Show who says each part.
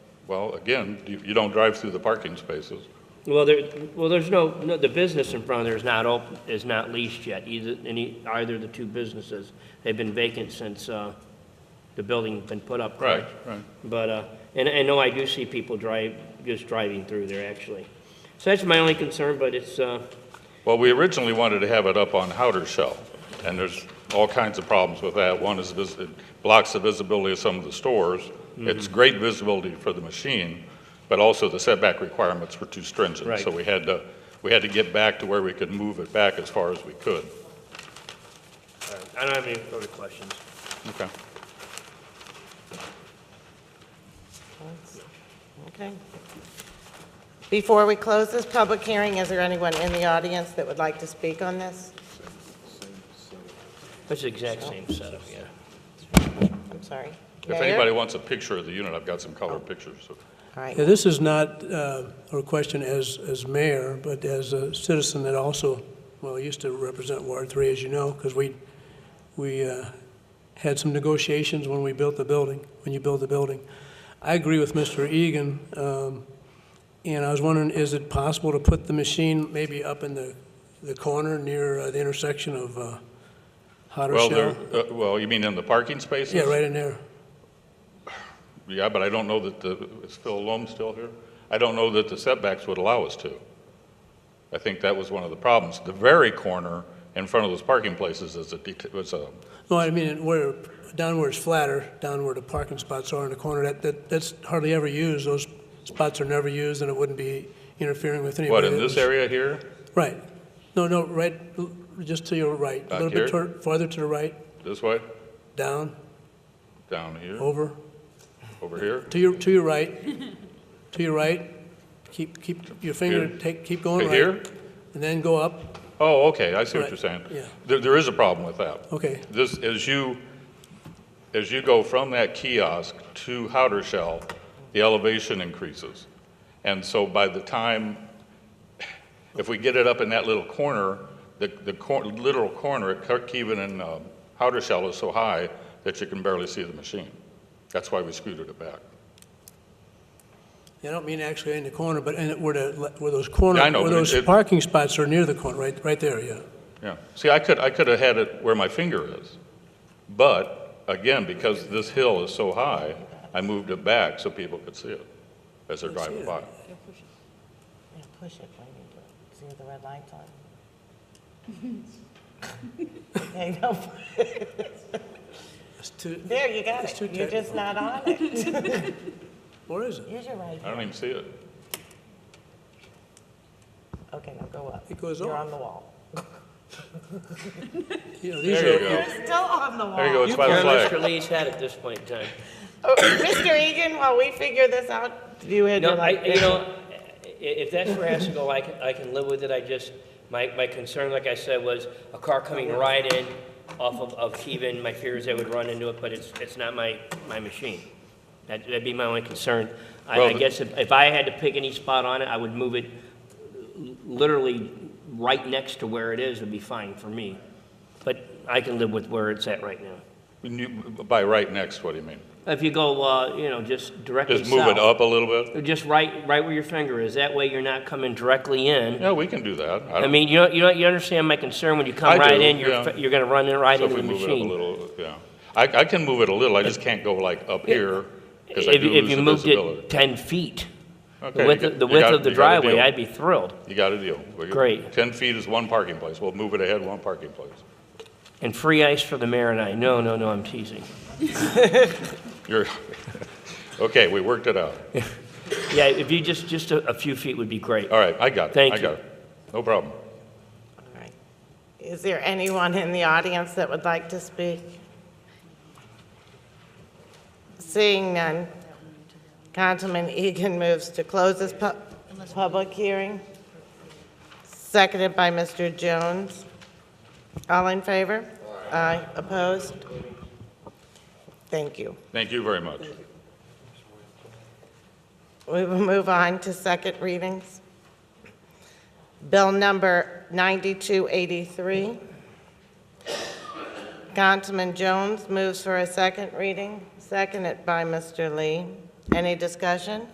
Speaker 1: Well, again, you you don't drive through the parking spaces.
Speaker 2: Well, there, well, there's no, no, the business in front of there is not open, is not leased yet, either, any, either of the two businesses. They've been vacant since, uh, the building's been put up.
Speaker 1: Right,
Speaker 2: correct?
Speaker 1: right.
Speaker 2: But, uh, and I know I do see people drive, just driving through there, actually. So that's my only concern, but it's, uh,
Speaker 1: Well, we originally wanted to have it up on Howder Shell, and there's all kinds of problems with that. One is vis- it blocks the visibility of some of the stores. It's great visibility for the machine, but also the setback requirements were too stringent.
Speaker 2: Right.
Speaker 1: So we had to, we had to get back to where we could move it back as far as we could.
Speaker 2: I don't have any further questions.
Speaker 1: Okay.
Speaker 3: Okay. Before we close this public hearing, is there anyone in the audience that would like to speak on this?
Speaker 2: It's the exact same setup, yeah.
Speaker 3: I'm sorry.
Speaker 1: If
Speaker 3: Mayor?
Speaker 1: anybody wants a picture of the unit, I've got some color pictures. so-
Speaker 3: All right.
Speaker 4: Yeah, this is not uh, a question as, as mayor, but as a citizen that also, well, used to represent Ward 3, as you know, because we, we uh, had some negotiations when we built the building, when you build the building. I agree with Mr. Egan, um, and I was wondering, is it possible to put the machine maybe up in the, the corner near uh, the intersection of uh, Hotter
Speaker 1: Well,
Speaker 4: Shell?
Speaker 1: there, uh, well, you mean in the parking spaces?
Speaker 4: Yeah, right in there.
Speaker 1: Yeah, but I don't know that the, is Phil Loam still here? I don't know that the setbacks would allow us to. I think that was one of the problems. The very corner in front of those parking places is a, det- was a,
Speaker 4: No, I mean, where, down where it's flatter, down where the parking spots are in the corner, that, that, that's hardly ever used. Those spots are never used, and it wouldn't be interfering with anybody.
Speaker 1: what, in
Speaker 4: that
Speaker 1: this
Speaker 4: was-
Speaker 1: area here?
Speaker 4: Right. No, no, right, l- just to your right.
Speaker 1: Back
Speaker 4: A little
Speaker 1: here?
Speaker 4: bit toward- farther to the right,
Speaker 1: This way?
Speaker 4: down,
Speaker 1: Down here?
Speaker 4: over,
Speaker 1: Over here?
Speaker 4: to your, to your right, to your right. Keep, keep your finger,
Speaker 1: Here?
Speaker 4: take, keep going
Speaker 1: To
Speaker 4: right.
Speaker 1: here?
Speaker 4: And then go up,
Speaker 1: Oh, okay, I see what
Speaker 4: Right,
Speaker 1: you're saying.
Speaker 4: yeah.
Speaker 1: There, there is a problem with that.
Speaker 4: okay.
Speaker 1: This, as you, as you go from that kiosk to Howder Shell, the elevation increases. And so by the time, if we get it up in that little corner, the, the cor- literal corner at Kirkhaven and uh, Howder Shell is so high that you can barely see the machine. That's why we scooted it back.
Speaker 4: I don't mean actually in the corner, but in, where the, le- where those corner,
Speaker 1: Yeah, I know,
Speaker 4: where
Speaker 1: but it-
Speaker 4: those
Speaker 1: it-
Speaker 4: parking spots are near the corner, right, right there, yeah.
Speaker 1: Yeah. See, I could, I could have had it where my finger is. But again, because this hill is so high, I moved it back so people could see it as they're driving by.
Speaker 3: Yeah, Push it when you do it. See if the red light's on. Okay, no,
Speaker 4: It's too,
Speaker 3: There, you got
Speaker 4: It's
Speaker 3: it.
Speaker 4: too
Speaker 3: You're just not on it.
Speaker 4: Where is it?
Speaker 3: Use your right
Speaker 1: I
Speaker 3: hand.
Speaker 1: don't even see it.
Speaker 3: Okay, now go up.
Speaker 4: It goes
Speaker 3: You're
Speaker 4: off.
Speaker 3: on the wall.
Speaker 4: You know, these
Speaker 1: There you
Speaker 4: are-
Speaker 1: go.
Speaker 3: Still on the wall.
Speaker 1: There you go, it's
Speaker 2: You
Speaker 1: by the
Speaker 2: can,
Speaker 1: flag.
Speaker 2: Mr. Lee's had at this point in time.
Speaker 3: Oh, Mr. Egan, while we figure this out, you had
Speaker 2: No,
Speaker 3: your
Speaker 2: I,
Speaker 3: light.
Speaker 2: you know, i- if that's where it has to go, I can, I can live with it, I just, my, my concern, like I said, was a car coming right in off of, of Keven, my fear is they would run into it, but it's, it's not my, my machine. That, that'd be my only concern. I,
Speaker 1: Well,
Speaker 2: I
Speaker 1: the-
Speaker 2: guess if, if I had to pick any spot on it, I would move it literally right next to where it is, would be fine for me. But I can live with where it's at right now.
Speaker 1: When you- By right next, what do you mean?
Speaker 2: If you go, uh, you know, just directly south.
Speaker 1: Just move it up a little bit?
Speaker 2: Just right, right where your finger is. That way you're not coming directly in.
Speaker 1: Yeah, we can do that.
Speaker 2: I
Speaker 1: don't-
Speaker 2: mean, you know, you know, you understand my concern when you
Speaker 1: I
Speaker 2: come right
Speaker 1: do,
Speaker 2: in, you're,
Speaker 1: yeah.
Speaker 2: fi- you're gonna run in right
Speaker 1: So if
Speaker 2: into
Speaker 1: we
Speaker 2: the
Speaker 1: move it up a
Speaker 2: machine.
Speaker 1: little, yeah. I, I can move it a little, I just can't go like up here, because I
Speaker 2: If,
Speaker 1: do
Speaker 2: if
Speaker 1: lose
Speaker 2: you
Speaker 1: the
Speaker 2: moved
Speaker 1: visibility.
Speaker 2: it ten feet,
Speaker 1: Okay,
Speaker 2: the
Speaker 1: you
Speaker 2: width,
Speaker 1: got-
Speaker 2: of- the
Speaker 1: you
Speaker 2: width
Speaker 1: got-
Speaker 2: of the
Speaker 1: you got a
Speaker 2: driveway,
Speaker 1: deal.
Speaker 2: I'd be thrilled.
Speaker 1: You got a deal. We-
Speaker 2: Great.
Speaker 1: Ten feet is one parking place, we'll move it ahead one parking place.
Speaker 2: And free ice for the mayor and I. No, no, no, I'm teasing.
Speaker 1: You're, okay, we worked it out.
Speaker 2: Yeah, if you just, just a, a few feet would be great.
Speaker 1: All right, I got it.
Speaker 2: Thank
Speaker 1: I
Speaker 2: you.
Speaker 1: got it. No problem.
Speaker 3: All right. Is there anyone in the audience that would like to speak? Seeing none, Councilman Egan moves to close this pu- public hearing, seconded by Mr. Jones. All in favor? Aye. Opposed? Thank you.
Speaker 1: Thank you very much.
Speaker 3: We will move on to second readings. Bill number 9283. Councilman Jones moves for a second reading, seconded by Mr. Lee. Any discussion?